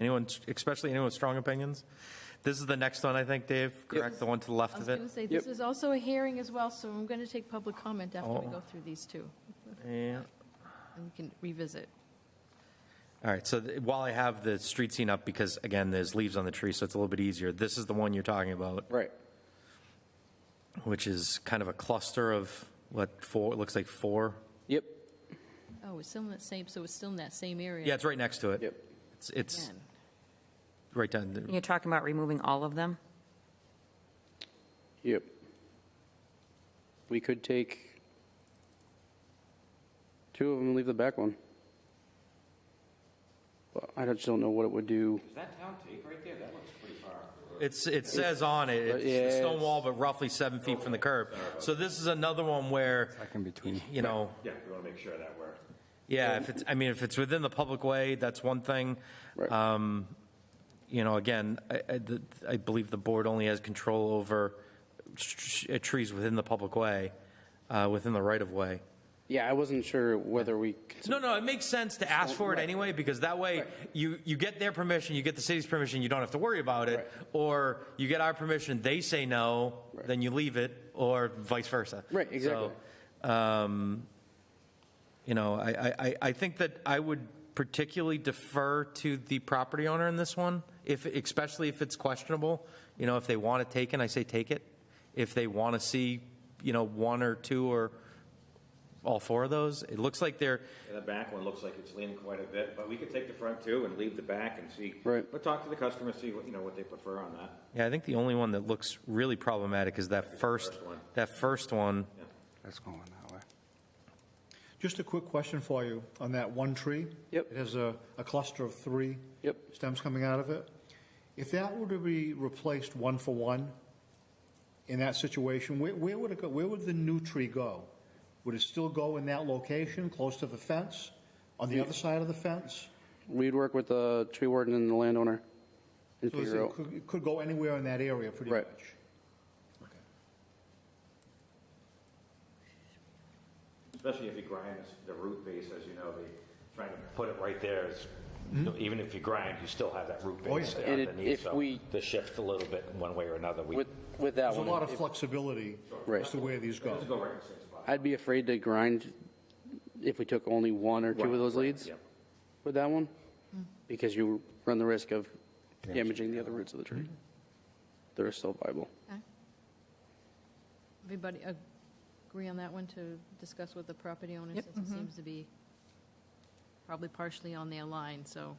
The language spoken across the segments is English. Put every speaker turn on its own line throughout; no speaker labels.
Anyone, especially anyone with strong opinions? This is the next one, I think, Dave, correct? The one to the left
I was
of
going
it?
to say, this is also a hearing as well, so I'm going to take public comment after we
Oh.
go through these two,
Yeah.
and we can revisit.
All right, so th- while I have the street scene up, because again, there's leaves on the tree, so it's a little bit easier, this is the one you're talking about,
Right.
which is kind of a cluster of, what, four, it looks like four?
Yep.
Oh, it's still in that same, so it's still in that same area.
Yeah, it's right next to it.
Yep.
It's, it's
Again.
right down, there.
You're talking about removing all of them?
Yep. We could take two of them and leave the back one. But I just don't know what it would do.
it's, it says on it, it's
yeah,
a stone
it's-
wall, but roughly seven feet from the curb. So this is another one where,
in between.
you know,
Yeah, we want to make sure that we're.
yeah, if it's, I mean, if it's within the public way, that's one thing. Um,
Right.
you know, again, I, I- the- I believe the board only has control over tr- tr- trees within the public way, uh, within the right of way.
yeah, I wasn't sure whether we.
No, no, it makes sense to ask for it anyway, because that way, you, you get their permission, you get the city's permission, you don't have to worry about it.
Right.
Or you get our permission, they say no,
Right.
then you leave it, or vice versa.
Right, exactly.
So, um, You know, I, I, I- I think that I would particularly defer to the property owner in this one, if, especially if it's questionable. You know, if they want it taken, I say take it. If they want to see, you know, one or two or all four of those, it looks like they're,
And the back one looks like it's leaning quite a bit, but we could take the front two and leave the back and see.
Right.
But talk to the customer, see what, you know, what they prefer on that.
Yeah, I think the only one that looks really problematic is that first,
first one.
that first one.
That's going that way.
Just a quick question for you on that one tree.
Yep.
It has a, a cluster of three.
Yep.
Stems coming out of it. If that were to be replaced one for one, in that situation, where, where would it go? Where would the new tree go? Would it still go in that location, close to the fence, on the other side of the fence?
We'd work with the tree warden and the landowner and
So it's-
figure
it
out.
could, it could go anywhere in that area, pretty
Right.
much.
Especially if you grind this- the root base, as you know, they trying to put it right there is, you know, even if you grind, you still have that root
Oh,
base
yeah.
there
Hmm? And it-
underneath.
if
so
we-
The shift a little bit in one way or another. We
With, with that
There's a
one,
lot of
if-
flexibility
Right.
as to where these go.
Just go right in the same spot.
I'd be afraid to grind if we took only one or two of those leads
Yep.
with that one, because you run the risk of damaging the other roots of the tree. They're still viable.
Okay. Everybody ag- agree on that one to discuss with the property owner, since it seems to be probably partially on their line, so.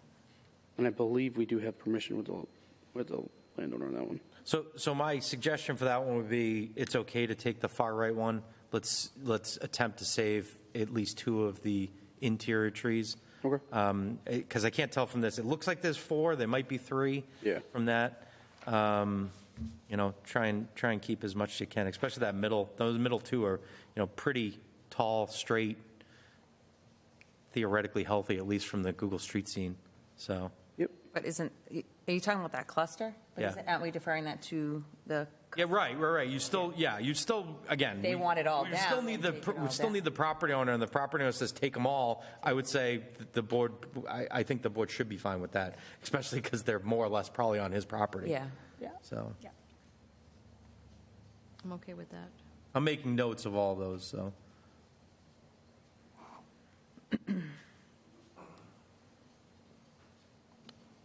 And I believe we do have permission with the, with the landowner on that one.
So, so my suggestion for that one would be, it's okay to take the far right one. Let's, let's attempt to save at least two of the interior trees.
Okay.
Because I can't tell from this, it looks like there's four, there might be three.
Yeah.
From that, um, you know, try and, try and keep as much as you can, especially that middle, those middle two are, you know, pretty tall, straight, theoretically healthy, at least from the Google Street scene, so.
Yep.
But isn't, are you talking about that cluster? But
Yeah.
isn't- Aren't we deferring that to the,
Yeah, right, right, right. You still, yeah, you still, again.
They
we-
want it all
We still
down,
need the,
then take it
we
all
still
down.
need the property owner, and the property owner says, take them all. I would say th- the board, I, I think the board should be fine with that, especially because they're more or less probably on his property.
yeah?
So,
I'm okay with that.
I'm making notes of all those, so.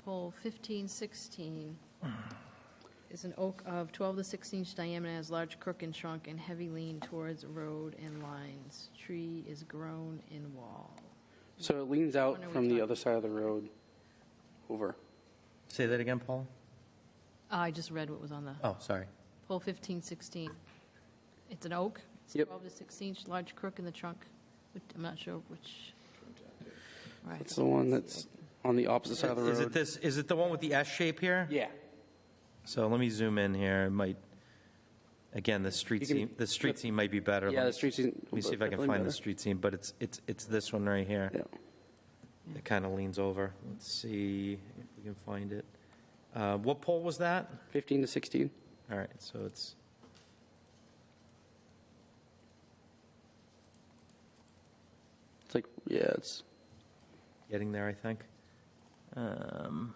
Pole 1516 is an oak of 12 to 16 inch diameter, has large crook and trunk, and heavy lean towards road and lines. Tree is grown in wall.
So it leans out
When are we
from the
talking?
other side of the road over.
Say that again, Paul?
Ah, I just read what was on the
Oh, sorry.
pole 1516. It's an oak. It's
Yep.
12 to 16 inch, large crook in the trunk, which I'm not sure which. Right.
It's the one that's on the opposite side of the
Is it
road.
this, is it the one with the S shape here?
Yeah.
So let me zoom in here. It might, again, the street
You can-
scene, the street scene might be better.
Yeah,
Let me-
the street scene
Let me see if I can
definitely
find the
better.
street scene, but it's, it's, it's this one right here.
Yeah.
It kind of leans over. Let's see if we can find it. Uh, What pole was that?
15 to 16.
All right, so it's.
It's like, yeah, it's
getting there, I think. Um,